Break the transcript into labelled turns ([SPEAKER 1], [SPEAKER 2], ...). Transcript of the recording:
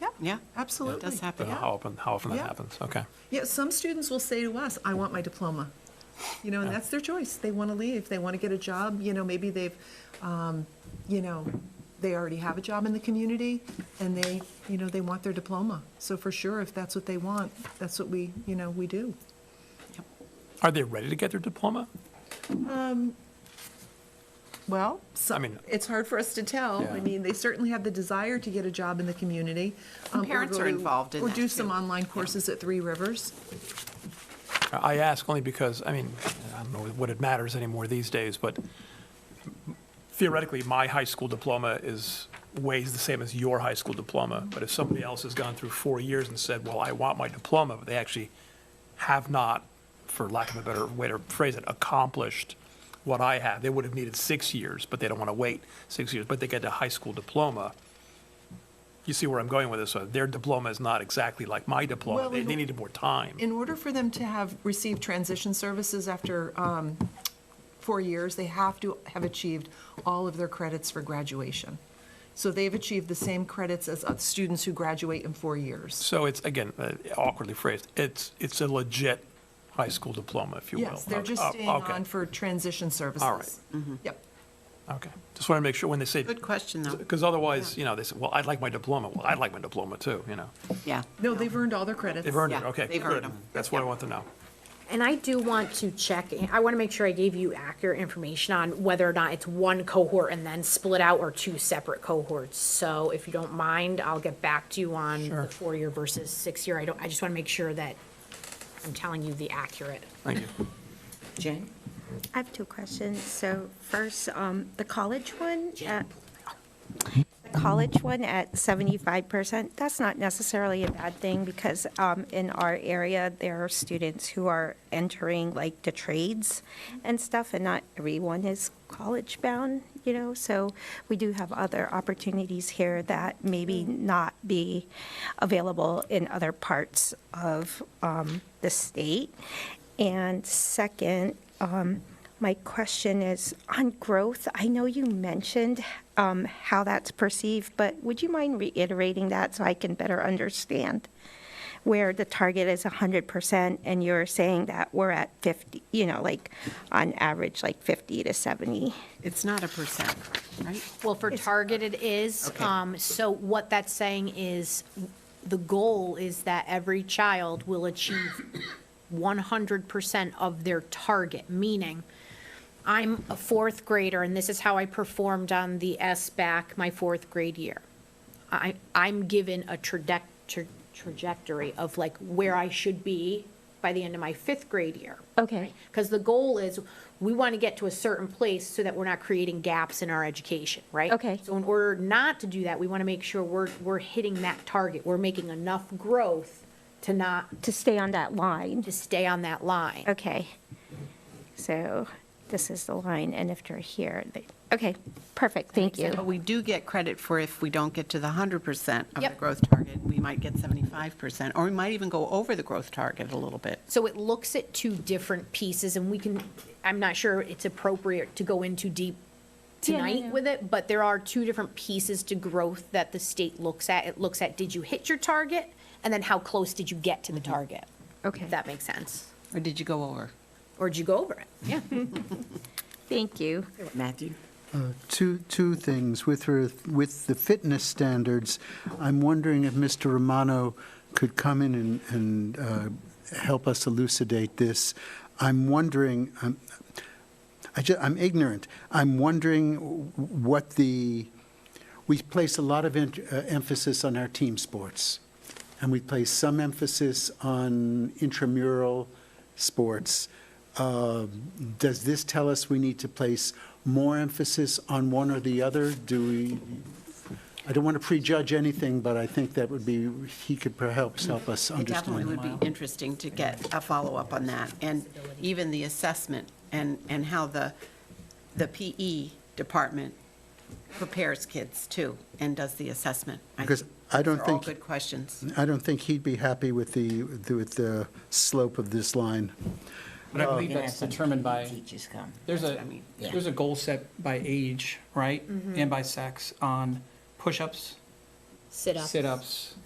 [SPEAKER 1] Yeah.
[SPEAKER 2] Yeah,
[SPEAKER 1] Absolutely.
[SPEAKER 2] it does happen.
[SPEAKER 3] But
[SPEAKER 1] Yeah.
[SPEAKER 3] how often, how often that
[SPEAKER 1] Yeah.
[SPEAKER 3] happens, okay.
[SPEAKER 1] Yeah, some students will say to us, I want my diploma. You know, and that's their choice. They want to leave, they want to get a job, you know, maybe they've, um, you know, they already have a job in the community, and they, you know, they want their diploma. So for sure, if that's what they want, that's what we, you know, we do.
[SPEAKER 3] Are they ready to get their diploma?
[SPEAKER 1] Well,
[SPEAKER 3] I
[SPEAKER 1] some,
[SPEAKER 3] mean-
[SPEAKER 1] it's hard for us to tell. I
[SPEAKER 3] Yeah.
[SPEAKER 1] mean, they certainly have the desire to get a job in the community. um, or
[SPEAKER 2] parents
[SPEAKER 1] go
[SPEAKER 2] are
[SPEAKER 1] to-
[SPEAKER 2] involved in
[SPEAKER 1] Or
[SPEAKER 2] that,
[SPEAKER 1] do some
[SPEAKER 2] too.
[SPEAKER 1] online courses at Three Rivers.
[SPEAKER 3] I ask only because, I mean, I don't know what it matters anymore these days, but theoretically, my high school diploma is, weighs the same as your high school diploma. But if somebody else has gone through four years and said, well, I want my diploma, but they actually have not, for lack of a better way to phrase it, accomplished what I have, they would have needed six years, but they don't want to wait six years, but they get a high school diploma. You see where I'm going with this, uh, their diploma is not exactly like my diploma,
[SPEAKER 1] Well,
[SPEAKER 3] they,
[SPEAKER 1] we-
[SPEAKER 3] they needed more time.
[SPEAKER 1] In order for them to have, received transition services after um, four years, they have to have achieved all of their credits for graduation. So they've achieved the same credits as uh, students who graduate in four years.
[SPEAKER 3] So it's, again, uh, awkwardly phrased, it's, it's a legit high school diploma, if you will.
[SPEAKER 1] Yes, they're just
[SPEAKER 3] Oh,
[SPEAKER 1] staying
[SPEAKER 3] okay,
[SPEAKER 1] on for transition services. Yep.
[SPEAKER 3] Okay, just want to make sure when they say,
[SPEAKER 2] Good question, though.
[SPEAKER 3] because otherwise, you know, they say, well, I'd like my diploma, well, I'd like my diploma too, you know.
[SPEAKER 2] Yeah.
[SPEAKER 1] No, they've earned all their credits.
[SPEAKER 3] They've earned it,
[SPEAKER 2] Yeah,
[SPEAKER 3] okay,
[SPEAKER 2] they've earned
[SPEAKER 3] good,
[SPEAKER 2] them.
[SPEAKER 3] that's what I want to know.
[SPEAKER 4] And I do want to check, I want to make sure I gave you accurate information on whether or not it's one cohort and then split out or two separate cohorts. So if you don't mind, I'll get back to you on
[SPEAKER 3] Sure.
[SPEAKER 4] the four-year versus six-year. I don't, I just want to make sure that I'm telling you the accurate.
[SPEAKER 3] Thank you.
[SPEAKER 2] Jane?
[SPEAKER 5] I have two questions. So first, um, the college one, at- the college one at 75%, that's not necessarily a bad thing because um, in our area, there are students who are entering like the trades and stuff, and not everyone is college-bound, you know? So we do have other opportunities here that maybe not be available in other parts of um, the state. And second, um, my question is on growth. I know you mentioned um, how that's perceived, but would you mind reiterating that so I can better understand? Where the target is 100% and you're saying that we're at 50, you know, like on average, like 50 to 70.
[SPEAKER 2] It's not a percent, right?
[SPEAKER 4] Well, for Target it is.
[SPEAKER 2] Okay.
[SPEAKER 4] Um, So what that's saying is, the goal is that every child will achieve 100% of their target, meaning I'm a fourth grader, and this is how I performed on the SBAC my fourth grade year. I, I'm given a traje- tra- trajectory of like where I should be by the end of my fifth grade year.
[SPEAKER 5] Okay.
[SPEAKER 4] Because the goal is, we want to get to a certain place so that we're not creating gaps in our education, right?
[SPEAKER 5] Okay.
[SPEAKER 4] So in order not to do that, we want to make sure we're, we're hitting that target. We're making enough growth to not,
[SPEAKER 5] To stay on that line.
[SPEAKER 4] to stay on that line.
[SPEAKER 5] Okay. So this is the line, and if they're here, they, okay, perfect, thank you.
[SPEAKER 2] But we do get credit for if we don't get to the 100% of the
[SPEAKER 4] Yep.
[SPEAKER 2] growth target, we might get 75%, or we might even go over the growth target a little bit.
[SPEAKER 4] So it looks at two different pieces, and we can, I'm not sure it's appropriate to go into deep
[SPEAKER 5] Yeah, no,
[SPEAKER 4] tonight
[SPEAKER 5] no.
[SPEAKER 4] with it, but there are two different pieces to growth that the state looks at. It looks at, did you hit your target? And then how close did you get to the target?
[SPEAKER 5] Mm-hmm. Okay.
[SPEAKER 4] If that makes sense.
[SPEAKER 2] Or did you go over?
[SPEAKER 4] Or did you go over it? Yeah.
[SPEAKER 5] Thank you.
[SPEAKER 2] Matthew?
[SPEAKER 6] Uh, Two, two things. With her, with the fitness standards, I'm wondering if Mr. Romano could come in and, and uh, help us elucidate this. I'm wondering, um, I'm, I ju- I'm ignorant. I'm wondering what the, we place a lot of en- uh, emphasis on our team sports, and we place some emphasis on intramural sports. Uh, Does this tell us we need to place more emphasis on one or the other? Do we, I don't want to prejudge anything, but I think that would be, he could perhaps help us
[SPEAKER 2] It definitely would
[SPEAKER 6] understand.
[SPEAKER 2] be interesting to get a follow-up on that, and even the assessment, and, and how the, the PE department prepares kids too, and does the assessment. I
[SPEAKER 6] Because
[SPEAKER 2] think
[SPEAKER 6] I
[SPEAKER 2] those
[SPEAKER 6] don't
[SPEAKER 2] are all
[SPEAKER 6] think-
[SPEAKER 2] good questions.
[SPEAKER 6] I don't think he'd be happy with the, with the slope of this line.
[SPEAKER 7] But I believe
[SPEAKER 8] Yeah,
[SPEAKER 7] that's
[SPEAKER 8] but
[SPEAKER 7] determined by,
[SPEAKER 8] Teachers come.
[SPEAKER 7] there's
[SPEAKER 2] That's what
[SPEAKER 7] a,
[SPEAKER 2] I mean. Mm-hmm.
[SPEAKER 8] Yeah.
[SPEAKER 7] there's a goal set by age, right? And by sex on push-ups,
[SPEAKER 4] Sit up.
[SPEAKER 7] sit-ups,